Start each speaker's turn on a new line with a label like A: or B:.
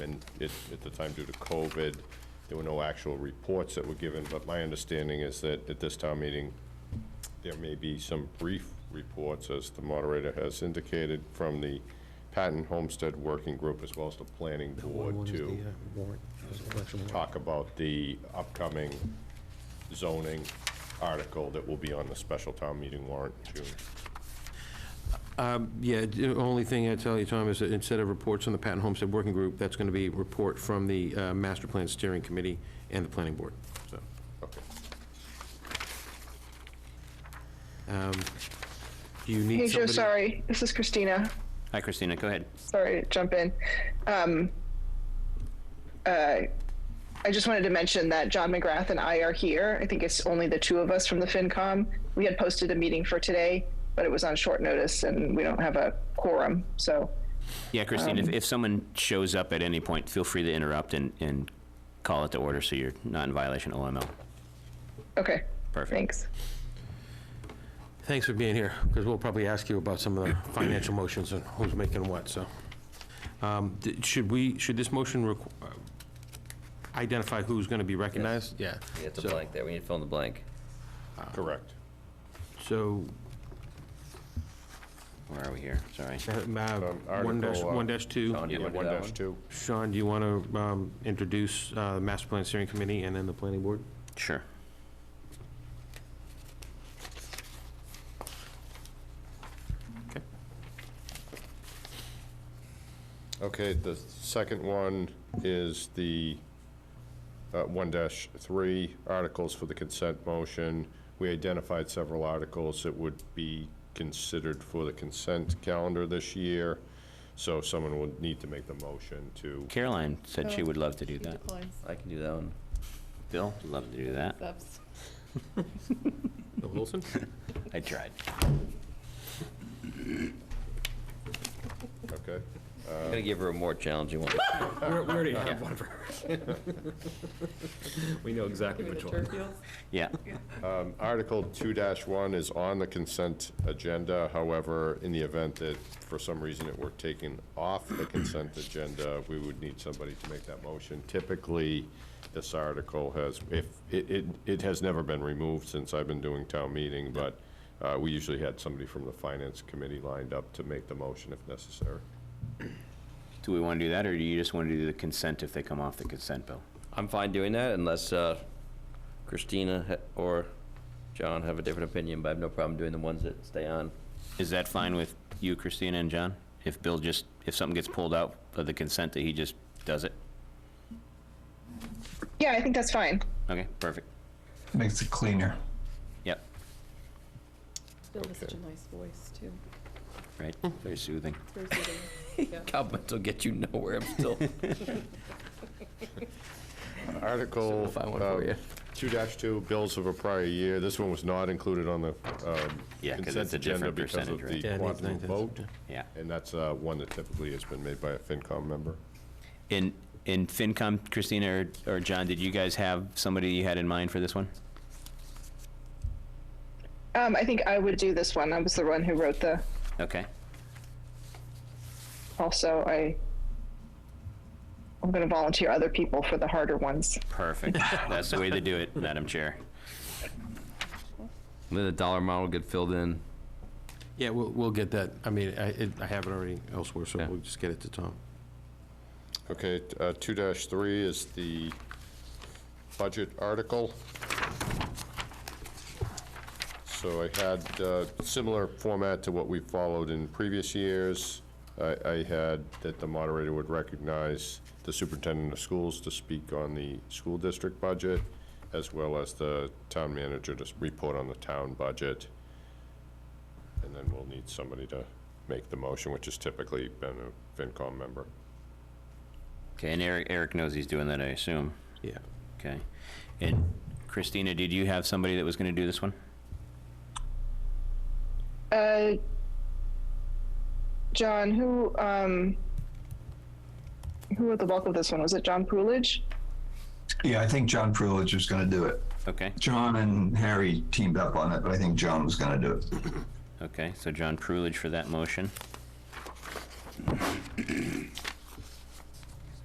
A: And it- at the time due to COVID, there were no actual reports that were given, but my understanding is that at this town meeting, there may be some brief reports, as the moderator has indicated, from the Patent Homestead Working Group as well as the Planning Board
B: One is
A: to
B: the, uh, warrant, uh, election warrant.
A: talk about the upcoming zoning article that will be on the special town meeting warrant in June.
C: Um, Yeah, the only thing I'd tell you, Tom, is that instead of reports on the Patent Homestead Working Group, that's going to be a report from the uh, Master Plan Steering Committee and the Planning Board, so.
A: Okay.
C: um, Do you
D: Hey
C: need
D: Joe,
C: somebody?
D: sorry. This is Christina.
E: Hi, Christina. Go ahead.
D: Sorry to jump in. Um, uh, I just wanted to mention that John McGrath and I are here. I think it's only the two of us from the FinCom. We had posted a meeting for today, but it was on short notice and we don't have a quorum. So
E: Yeah, Christine, if, if someone shows up at any point, feel free to interrupt and, and call it to order so you're not in violation of OML.
D: okay.
E: Perfect.
D: Thanks.
C: Thanks for being here, because we'll probably ask you about some of the financial motions and who's making what, so. Um, d- Should we, should this motion requ- uh, identify who's going to be recognized? Yeah.
F: Yeah, it's a
C: So-
F: blank there, we need to fill in the blank.
A: Correct.
C: So,
E: Where are we here? Sorry.
C: uh, ma- one dash,
A: Article, uh,
C: one dash two.
F: Sean, do
A: Yeah,
F: you wanna do
A: one
F: that
A: dash two.
C: Sean, do you want to um, introduce uh, the Master Plan Steering Committee and then the Planning Board?
E: Sure.
A: Okay, the second one is the uh, 1-3 articles for the consent motion. We identified several articles that would be considered for the consent calendar this year, so someone would need to make the motion to,
E: Caroline said she would love to do that.
G: Declines.
F: I can do that one.
E: Bill, would love to do that.
G: That's-
C: Bill Wilson?
E: I tried.
A: okay?
F: I'm gonna give her a more challenging one.
H: We know exactly
G: Give it
H: which
G: to
H: one.
G: Turfield.
E: Yeah.
A: Um, Article 2-1 is on the consent agenda, however, in the event that for some reason it were taken off the consent agenda, we would need somebody to make that motion. Typically, this article has, if, it, it, it has never been removed since I've been doing town meeting, but uh, we usually had somebody from the finance committee lined up to make the motion if necessary.
E: Do we want to do that, or do you just want to do the consent if they come off the consent, Bill?
F: I'm fine doing that unless uh, Christina ha- or John have a different opinion, but I have no problem doing the ones that stay on.
E: Is that fine with you, Christina and John? If Bill just, if something gets pulled out of the consent, that he just does it?
D: Yeah, I think that's fine.
E: Okay, perfect.
I: makes it cleaner.
E: Yep,
G: Bill has such a
A: Okay.
G: nice voice, too.
E: right. Very soothing.
G: It's very soothing. Yeah.
F: Compliments will get you nowhere, I'm still,
A: Article.
F: I'll find one for
A: um,
F: you.
A: 2-2, bills of a prior year. This one was not included on the um,
E: Yeah, 'cause
A: consent
E: it's a
A: agenda
E: different
A: because of
E: percentage, right?
A: the
C: Yeah, it needs
A: quantum
C: nine
A: vote.
C: thousand,
E: Yeah.
A: And that's uh, one that typically has been made by a FinCom member.
E: In, in FinCom, Christina or, or John, did you guys have somebody you had in mind for this one?
D: Um, I think I would do this one. I was the one who wrote the,
E: Okay,
D: also I, I'm going to volunteer other people for the harder ones.
E: perfect. That's the way to do it, Madam Chair.
F: then the dollar amount will get filled in.
C: Yeah, we'll, we'll get that. I mean, I, it- I have it already elsewhere, so
F: Yeah.
C: we'll just get it to Tom.
A: Okay, t- uh, 2-3 is the budget article. So I had uh, similar format to what we followed in previous years. I I had that the moderator would recognize the superintendent of schools to speak on the school district budget, as well as the town manager to s- report on the town budget. And then we'll need somebody to make the motion, which has typically been a FinCom member.
E: Okay, and Eric, Eric knows he's doing that, I assume.
C: Yeah.
E: Okay. And Christina, did you have somebody that was gonna do this one?
D: Uh, John, who um, who wrote the bulk of this one? Was it John Poolidge?
I: Yeah, I think John Prulich was going to do it.
E: Okay,
I: John and Harry teamed up on it, but I think John was going to do it.
E: okay, so John Prulidge for that motion.